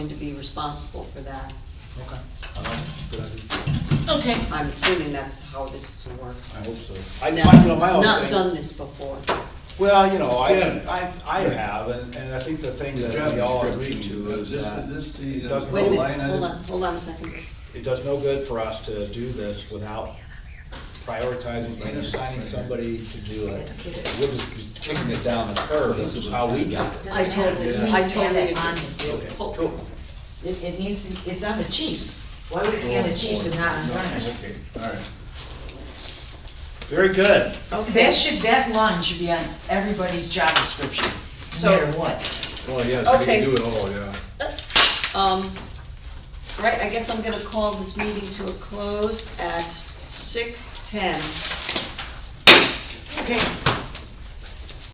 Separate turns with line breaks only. going to be responsible for that.
Okay. I like it. Good idea.
Okay,
I'm assuming that's how this is work.
I hope so. Um, I,
Now,
my- you know, my whole
Not
thing-
done this before.
Well, you know, I,
Yeah.
I, I have, and, and I think the thing that
Job
we all agree
description,
to
uh,
is
This,
that
this, the.
it doesn't-
Wait a
line
minute,
item-
hold on, hold on a second.
it does no good for us to do this without prioritizing and assigning somebody to do it. We're just kicking it down the curb, this is how we got it.
I totally,
Doesn't
I
have to have
totally
it on
agree.
Okay, cool.
it, it needs, it's on the Chiefs. Why would it be on the Chiefs and not on runners?
Oh, Okay, all right. Very good.
That should, that line should be on everybody's job description, no
So-
matter what.
Well, Oh, yes, we
Okay.
can do it all, yeah.
Um, right, I guess I'm gonna call this meeting to a close at six ten.
Okay.